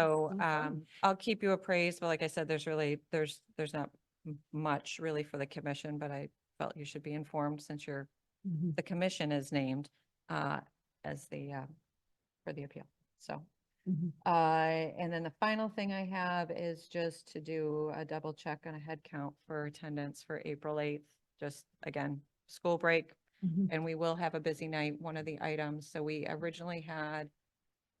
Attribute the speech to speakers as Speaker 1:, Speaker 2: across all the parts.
Speaker 1: So
Speaker 2: Okay.
Speaker 1: um, I'll keep you appraised, but like I said, there's really, there's, there's not m- much really for the commission, but I felt you should be informed since you're,
Speaker 2: Mhm.
Speaker 1: the commission is named uh, as the, uh, for the appeal, so.
Speaker 2: Mhm.
Speaker 1: Uh, and then the final thing I have is just to do a double check on a head count for attendance for April eighth. Just again, school break,
Speaker 3: Mm-hmm.
Speaker 2: Mhm.
Speaker 1: and we will have a busy night, one of the items. So we originally had,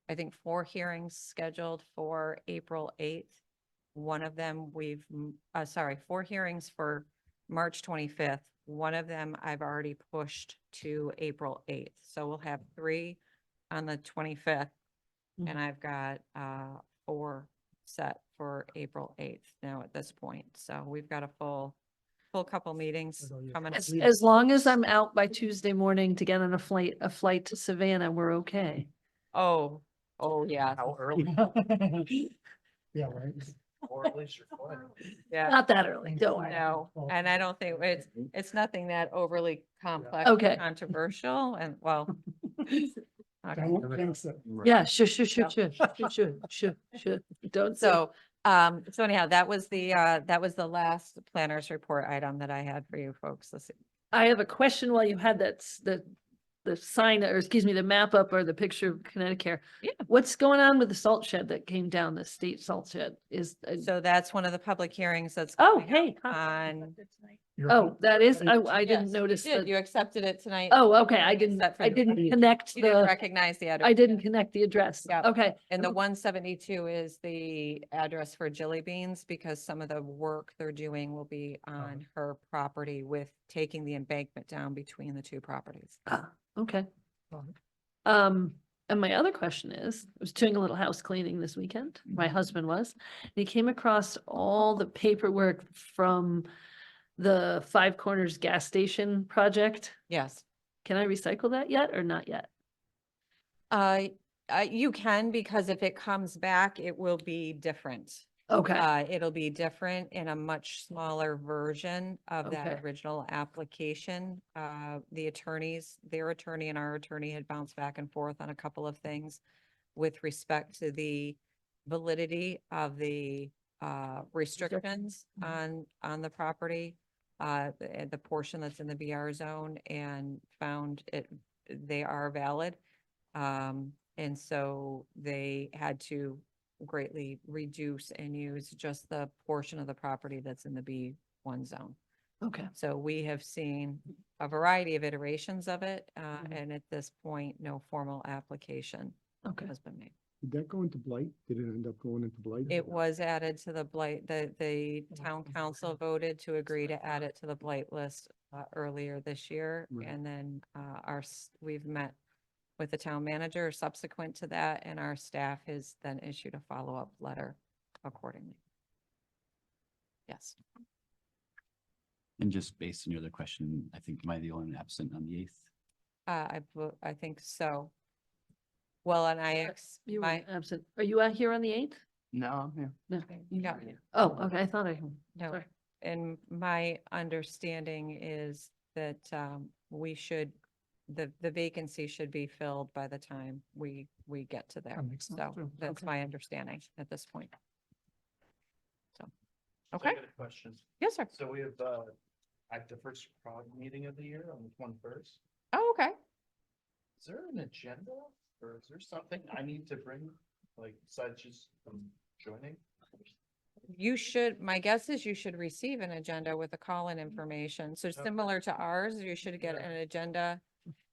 Speaker 1: I think, four hearings scheduled for April eighth. One of them we've, m- uh, sorry, four hearings for March twenty-fifth. One of them I've already pushed to April eighth. So we'll have three on the twenty-fifth.
Speaker 2: Mhm.
Speaker 3: Mm-hmm.
Speaker 1: And I've got, uh, four set for April eighth now at this point. So we've got a full, full couple meetings
Speaker 3: all you
Speaker 1: coming.
Speaker 3: have.
Speaker 2: As,
Speaker 3: Leave.
Speaker 2: as long as I'm out by Tuesday morning to get on a flight, a flight to Savannah, we're okay.
Speaker 1: Oh, oh, yeah.
Speaker 3: How early? Yeah, right.
Speaker 1: Yeah,
Speaker 2: Not that early, don't worry.
Speaker 1: no,
Speaker 3: Well-
Speaker 1: and I don't think it's, it's nothing that overly complex. or
Speaker 2: Okay.
Speaker 1: Controversial and well. okay.
Speaker 3: Don't jinx it.
Speaker 2: Yeah, sure, sure,
Speaker 1: No.
Speaker 2: sure, sure, sure, sure, sure, sure. Don't say-
Speaker 1: So, um, so anyhow, that was the, uh, that was the last planner's report item that I had for you folks this.
Speaker 2: I have a question while you had that, s- the, the sign, or excuse me, the map up or the picture of Connecticut.
Speaker 1: Yeah.
Speaker 2: What's going on with the salt shed that came down, the state salt shed is, uh,
Speaker 1: e-, So that's one of the public hearings that's.
Speaker 2: oh,
Speaker 1: coming up
Speaker 2: hey. huh.
Speaker 1: On.
Speaker 3: You're-
Speaker 2: Oh, that is, I, I
Speaker 1: Yes,
Speaker 2: didn't
Speaker 1: you
Speaker 2: notice
Speaker 1: did.
Speaker 2: that.
Speaker 1: You accepted it tonight.
Speaker 2: Oh, okay, I didn't,
Speaker 1: Except for
Speaker 2: I
Speaker 1: the-
Speaker 2: didn't connect
Speaker 1: You didn't
Speaker 2: the,
Speaker 1: recognize the address.
Speaker 2: I didn't connect the address.
Speaker 1: Yeah.
Speaker 2: Okay,
Speaker 1: And the one seventy-two is the address for Jelly Beans because some of the work they're doing will be
Speaker 2: Oh.
Speaker 1: on her property with taking the embankment down between the two properties.
Speaker 2: Ah, okay.
Speaker 3: Mhm.
Speaker 2: Um, and my other question is, I was doing a little house cleaning this weekend, my husband was, and he came across all the paperwork from the Five Corners Gas Station project.
Speaker 1: Yes.
Speaker 2: Can I recycle that yet or not yet?
Speaker 1: Uh, uh, you can, because if it comes back, it will be different.
Speaker 2: Okay,
Speaker 1: Uh, it'll be different in a much smaller version of that
Speaker 2: Okay.
Speaker 1: original application. Uh, the attorneys, their attorney and our attorney had bounced back and forth on a couple of things with respect to the validity of the, uh, restrictions
Speaker 2: Mhm.
Speaker 1: on, on the property, uh, the, the portion that's in the BR zone and found it, they are valid. Um, and so they had to greatly reduce and use just the portion of the property that's in the B one zone.
Speaker 2: okay.
Speaker 1: So we have seen a variety of iterations of it, uh,
Speaker 2: Mhm.
Speaker 1: and at this point, no formal application
Speaker 2: Okay.
Speaker 1: has been made.
Speaker 4: Did that go into blight? Did it end up going into blight?
Speaker 1: It was added to the blight, the, the town council voted to agree to add it to the blight list uh, earlier this year.
Speaker 4: Right.
Speaker 1: And then, uh, our, s- we've met with the town manager subsequent to that, and our staff has then issued a follow-up letter accordingly. Yes.
Speaker 5: And just based on your other question, I think am I the only one absent on the eighth?
Speaker 1: Uh, I, bel- I think so. Well, and I, ex-
Speaker 2: You were
Speaker 1: my,
Speaker 2: absent. Are you out here on the eighth?
Speaker 5: No, yeah.
Speaker 2: No.
Speaker 1: yeah,
Speaker 2: Oh, okay, I thought I,
Speaker 1: no.
Speaker 2: sorry.
Speaker 1: And my understanding is that, um, we should, the, the vacancy should be filled by the time we, we get to there.
Speaker 3: That makes sense
Speaker 1: So
Speaker 3: too.
Speaker 1: that's
Speaker 3: Okay.
Speaker 1: my understanding at this point. So, okay,
Speaker 6: Questions.
Speaker 1: yes, sir.
Speaker 6: So we have, uh, at the first CROG meeting of the year on the twenty-first,
Speaker 1: Oh, okay.
Speaker 6: is there an agenda? Or is there something I need to bring, like, besides just um, joining?
Speaker 1: You should, my guess is you should receive an agenda with the call-in information. So similar to ours, you should get
Speaker 6: Yeah.
Speaker 1: an agenda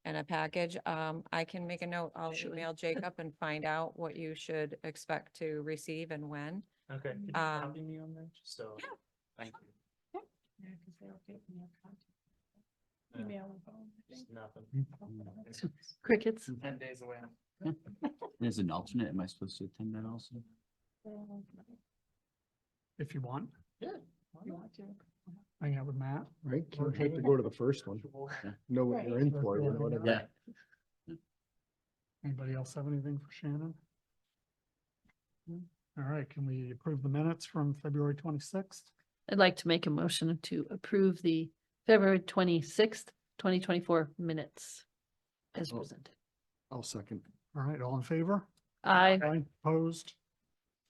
Speaker 1: and a package. Um, I can make a note. I'll
Speaker 2: Actually.
Speaker 1: email Jacob and find out what you should expect to receive and when.
Speaker 6: Okay. Could you
Speaker 1: Um,
Speaker 6: copy me on that, just so?
Speaker 1: yeah,
Speaker 6: Thank you.
Speaker 7: Yeah, because they'll get me a contact,
Speaker 6: Yeah,
Speaker 7: email and phone. I
Speaker 6: just
Speaker 7: think.
Speaker 6: Nothing.
Speaker 2: crickets.
Speaker 4: Mm.
Speaker 6: Ten days away.
Speaker 5: As an alternate, am I supposed to attend that also?
Speaker 7: Um,
Speaker 3: If you want,
Speaker 7: You want to?
Speaker 3: hang out with Matt.
Speaker 4: Right? Can't have to go to the first one. Know what you're in for, you know what I mean?
Speaker 5: Yeah.
Speaker 3: Anybody else have anything for Shannon? All right, can we approve the minutes from February twenty-sixth?
Speaker 2: I'd like to make a motion to approve the February twenty-sixth, twenty twenty-four minutes as
Speaker 4: Oh.
Speaker 2: presented.
Speaker 4: I'll second.
Speaker 3: All right, all in favor?
Speaker 2: I,
Speaker 3: Aye. Opposed?